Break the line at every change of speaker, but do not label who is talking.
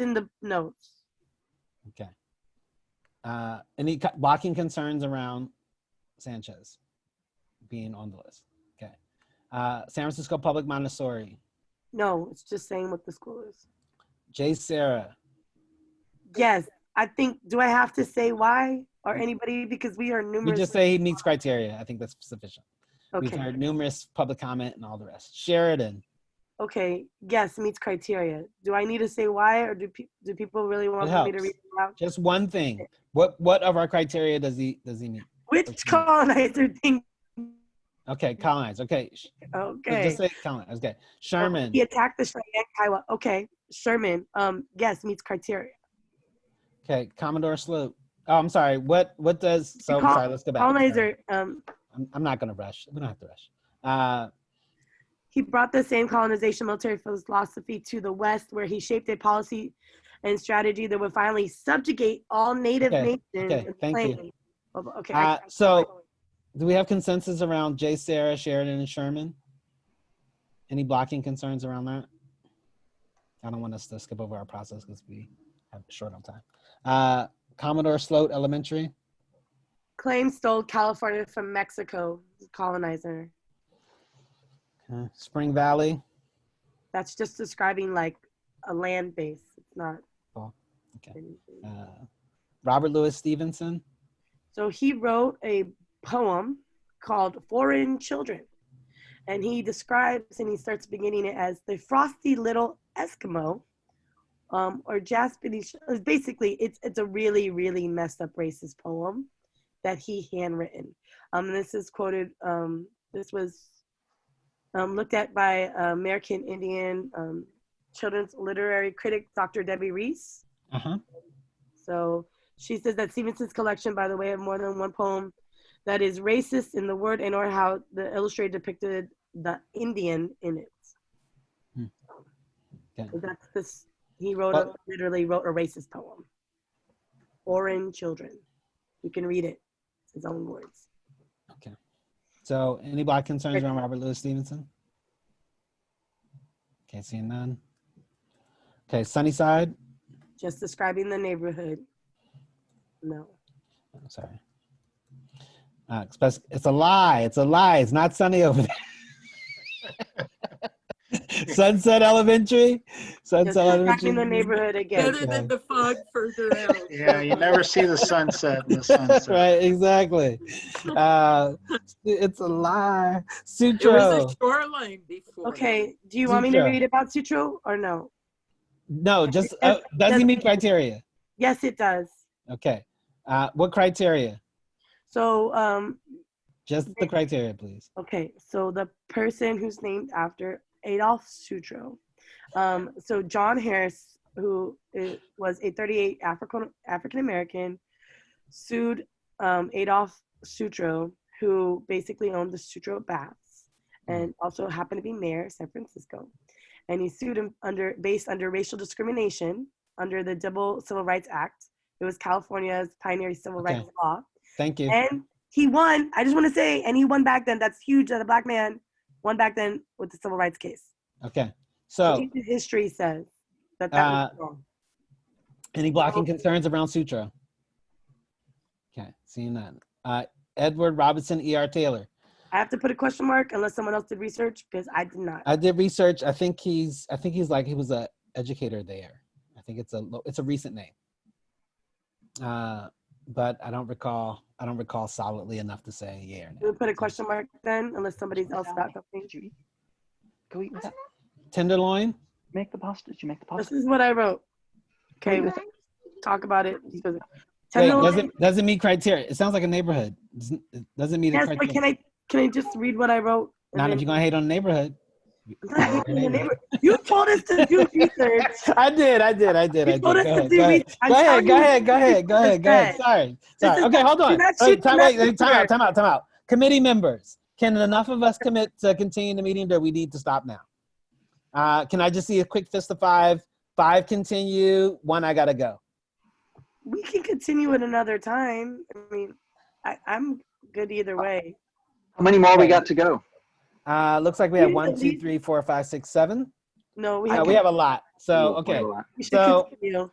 in the notes.
Okay. Uh, any co- blocking concerns around Sanchez being on the list? Okay. Uh, San Francisco Public Montessori,
No, it's just saying what the school is.
Jay Sarah.
Yes, I think, do I have to say why or anybody? Because we are
We
numerous.
just say he meets criteria. I think that's sufficient. We've
Okay,
heard numerous public comment and all the rest. Sheridan.
okay, yes, meets criteria. Do I need to say why or do, pe- do people really want me to
helps.
read it out?
Just one thing. What what of our criteria does he does he meet?
Which colonizer thing?
Okay, colonize. Okay, sh-
Okay.
just say colonize. Okay, Sherman.
He attacked the Cheyenne Kiowa. Okay, Sherman. Um, yes, meets criteria.
Okay, Commodore Sloop. Oh, I'm sorry. What what does? So
Col-
sorry. Let's go back.
Colonizer. Um,
I'm, I'm not gonna rush. We don't have to rush. Uh,
he brought the same colonization military philosophy to the West, where he shaped a policy and strategy that would finally subjugate all Native
Okay,
nations.
okay,
and
thank you.
claim- Oh, Okay. I-
uh, so do we have consensus around Jay, Sarah, Sheridan, and Sherman? Any blocking concerns around that? I don't want us to skip over our process because we have short on time. Uh, Commodore Sloat Elementary.
claim stole California from Mexico. Colonizer.
Uh, Spring Valley.
That's just describing like a land base. It's not.
Oh, okay.
anything.
Uh, Robert Louis Stevenson.
So he wrote a poem called Foreign Children. And he describes and he starts beginning it as the frosty little Eskimo um, or Japanese. Basically, it's, it's a really, really messed up racist poem that he handwritten. Um, this is quoted, um, this was um, looked at by uh, American Indian um, children's literary critic, Dr. Debbie Reese.
Uh huh.
So she says that Stevenson's collection, by the way, of more than one poem that is racist in the word and or how the illustrator depicted the Indian in it.
Hmm. Okay.
So That's this he wrote a,
Well-
literally wrote a racist poem. Foreign children. You can read it. It's his own words.
So any black concerns around Robert Louis Stevenson? Okay, seeing none. Okay, Sunnyside.
Just describing the neighborhood. No.
I'm sorry. Uh, express, it's a lie. It's a lie. It's not sunny over there. Sunset Elementary.
Just
Sunset
describing the
Elementary.
neighborhood again.
Better than the fog further out.
Yeah, you never see the sunset in the sunset.
right, exactly. Uh, it's a lie.
It was
Sutro.
a shoreline before.
Okay. Do you want me to
Zutra.
read about Sutro or no?
No, just uh, does he meet criteria?
Yes, it does.
Okay. Uh, what criteria?
So um,
Just the criteria, please.
Okay, so the person who's named after Adolf Sutro. Um, so John Harris, who i- was a 38 African African American, sued um, Adolf Sutro, who basically owned the Sutro Baths and also happened to be mayor of San Francisco, and he sued him under based under racial discrimination under the Double Civil Rights Act. It was California's pioneer civil
Okay.
rights law
Thank you.
and he won. I just want to say, and he won back then. That's huge that a black man won back then with the civil rights case.
Okay.
So
So, uh,
history says that that was wrong.
any blocking concerns around Sutra? Okay, seeing none. Uh, Edward Robinson, E.R. Taylor.
I have to put a question mark unless someone else did research because I did not.
I did research. I think he's. I think he's like he was a educator there. I think it's a. lo- It's a recent name. Uh, but I don't recall. I don't recall solidly enough to say yeah or no.
We'll put a question mark then unless somebody's else got something.
Go eat with that.
Tenderloin.
Make the pasta. Did you make the
This
pasta?
is what I wrote. Okay, we'll talk about it.
Wait,
Tenderloin-
doesn't doesn't meet criteria. It sounds like a neighborhood. Doesn't, it doesn't meet a
yes, but
criteria.
can I can I just read what I wrote? and
Not
then-
if you're gonna hate on the neighborhood.
I'm not hating the neighbor. You told us to do research.
I did, I did, I did, I
You
did. Go
told us to
ahead,
do
go ahead,
research. I'm
go ahead,
telling
go
you
ahead, go
what
ahead, go ahead, go ahead.
said.
Sorry,
This
sorry.
is-
Okay, hold
not
on. Wait,
shooting
time, wait, wait,
messenger.
time out, time out, time out. Committee members, can enough of us commit to continue the meeting, or we need to stop now? Uh, can I just see a quick fist of five? Five continue, one I gotta go.
we can continue it another time. I mean, I, I'm good either way.
How many more we got to go?
Uh, looks like we have
You
one, two,
delete-
three, four, five, six, seven. No, we
Yeah,
have.
we have a lot. So
Ooh,
okay.
all right.
we should
so-
continue.